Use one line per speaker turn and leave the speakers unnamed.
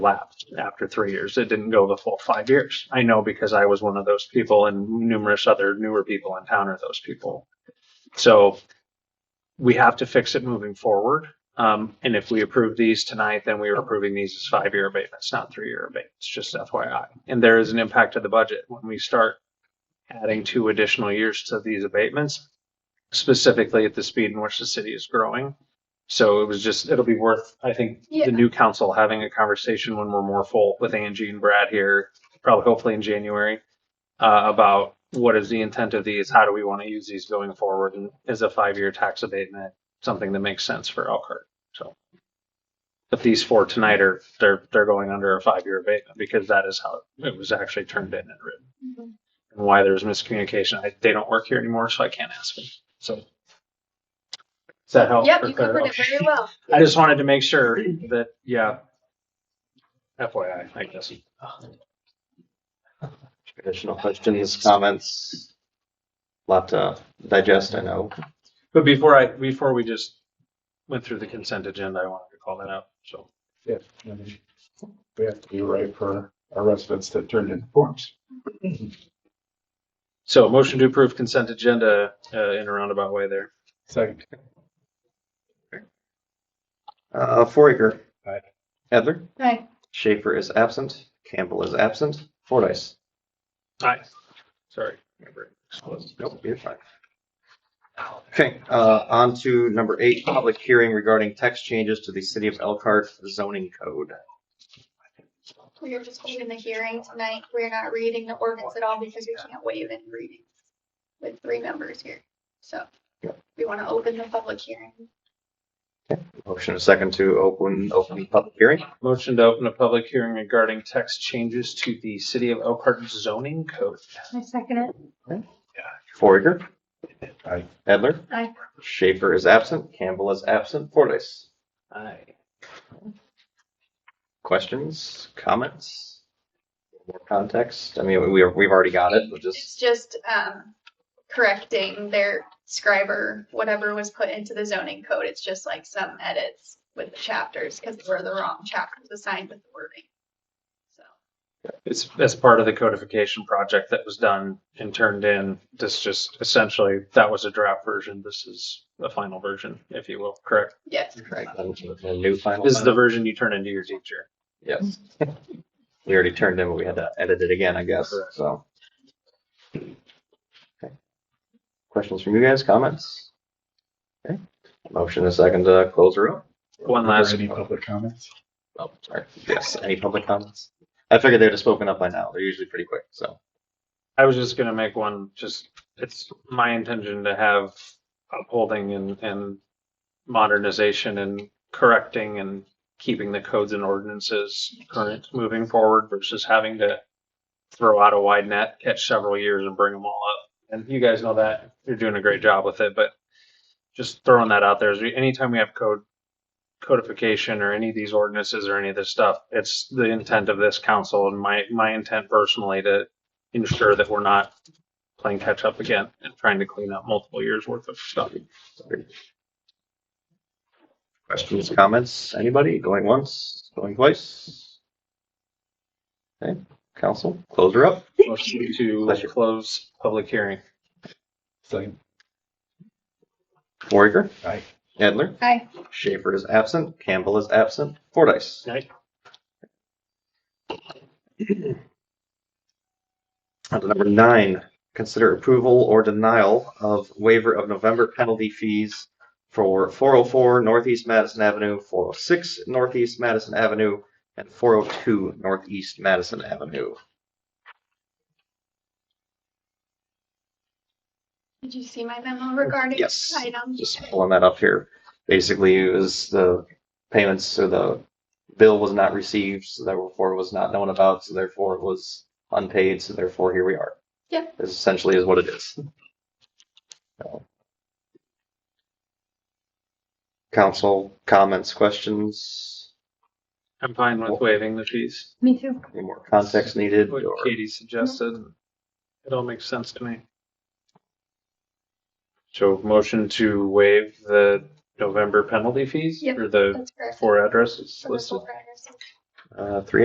lapsed after three years. It didn't go the full five years. I know because I was one of those people and numerous other newer people in town are those people. So we have to fix it moving forward. Um, and if we approve these tonight, then we are approving these as five-year abatements, not three-year abatements, just FYI. And there is an impact to the budget when we start adding two additional years to these abatements, specifically at the speed in which the city is growing. So it was just, it'll be worth, I think,
Yeah.
the new council having a conversation when we're more full with Angie and Brad here, probably hopefully in January, uh, about what is the intent of these? How do we want to use these going forward? And is a five-year tax abatement something that makes sense for Elkhart? So. But these four tonight are, they're, they're going under a five-year abatement because that is how it was actually turned in and written
Mm-hmm.
and why there's miscommunication. I, they don't work here anymore, so I can't ask them. So does that help?
Yep,
or
you
clear
covered
up?
it very well.
I just wanted to make sure that, yeah. FYI, I guess.
Additional questions, comments? Lot to digest, I know.
But before I, before we just went through the consent agenda, I wanted to call that out. So
Yeah, I mean, we have to be right for our residents to turn in forms.
so motion to approve consent agenda uh, in a roundabout way there.
Second,
Uh, Foraker.
Aye.
Edler.
Hi.
Schaefer is absent. Campbell is absent. Fordice.
Aye. Sorry. my brain exploded.
Nope, you're fine. Okay, uh, on to number eight, public hearing regarding text changes to the city of Elkhart zoning code.
We are just holding the hearing tonight. We're not reading the ordinance at all because we can't waive any reading with three members here. So
Yep.
we want to open the public hearing.
Motion and second to open, open public hearing.
Motion to open a public hearing regarding text changes to the city of Elkhart zoning code.
I second it.
Foraker.
Aye.
Edler.
Aye.
Schaefer is absent. Campbell is absent. Fordice.
Aye.
questions, comments, more context? I mean, we, we've already got it, but
It's
just,
just um, correcting their scriber, whatever was put into the zoning code. It's just like some edits with the chapters because were the wrong chapters assigned with the wording. So
It's as part of the codification project that was done and turned in. This just essentially, that was a draft version. This is the final version, if you will, correct?
yes,
right, a new final.
This is the version you turn into your teacher.
Yes. We already turned in, but we had to edit it again, I guess, so. Okay. Questions from you guys, comments? Okay, motion and second to close the room.
One last-
Any public comments?
Oh, sorry, yes, any public comments? I figured they'd have spoken up by now, they're usually pretty quick, so.
I was just gonna make one, just, it's my intention to have upholding and, and modernization and correcting and keeping the codes and ordinances current moving forward versus having to throw out a wide net, catch several years and bring them all up. And you guys know that, you're doing a great job with it, but just throwing that out there is anytime we have code codification or any of these ordinances or any of this stuff, it's the intent of this council and my, my intent personally to ensure that we're not playing catch up again and trying to clean up multiple years worth of stuff.
Questions, comments, anybody going once, going twice? Okay, council, close her up.
Motion to
Pleasure.
close public hearing.
Second,
Foraker,
aye.
Edler,
hi.
Schaefer is absent, Campbell is absent, Fordice.
Aye.
On to number nine, consider approval or denial of waiver of November penalty fees for four oh four Northeast Madison Avenue, four oh six Northeast Madison Avenue, and four oh two Northeast Madison Avenue.
Did you see my memo regarding
Yes.
this item?
just pulling that up here. Basically, it was the payments, so the bill was not received, so therefore it was not known about, so therefore it was unpaid, so therefore here we are.
Yeah.
This Essentially is what it is. So. Council comments, questions,
I'm fine with waiving the fees.
Me too.
any more context needed?
What
or-
Katie suggested, it all makes sense to me. So motion to waive the November penalty fees
Yep.
for the
That's correct.
four addresses
For the
listed.
full address.
uh, three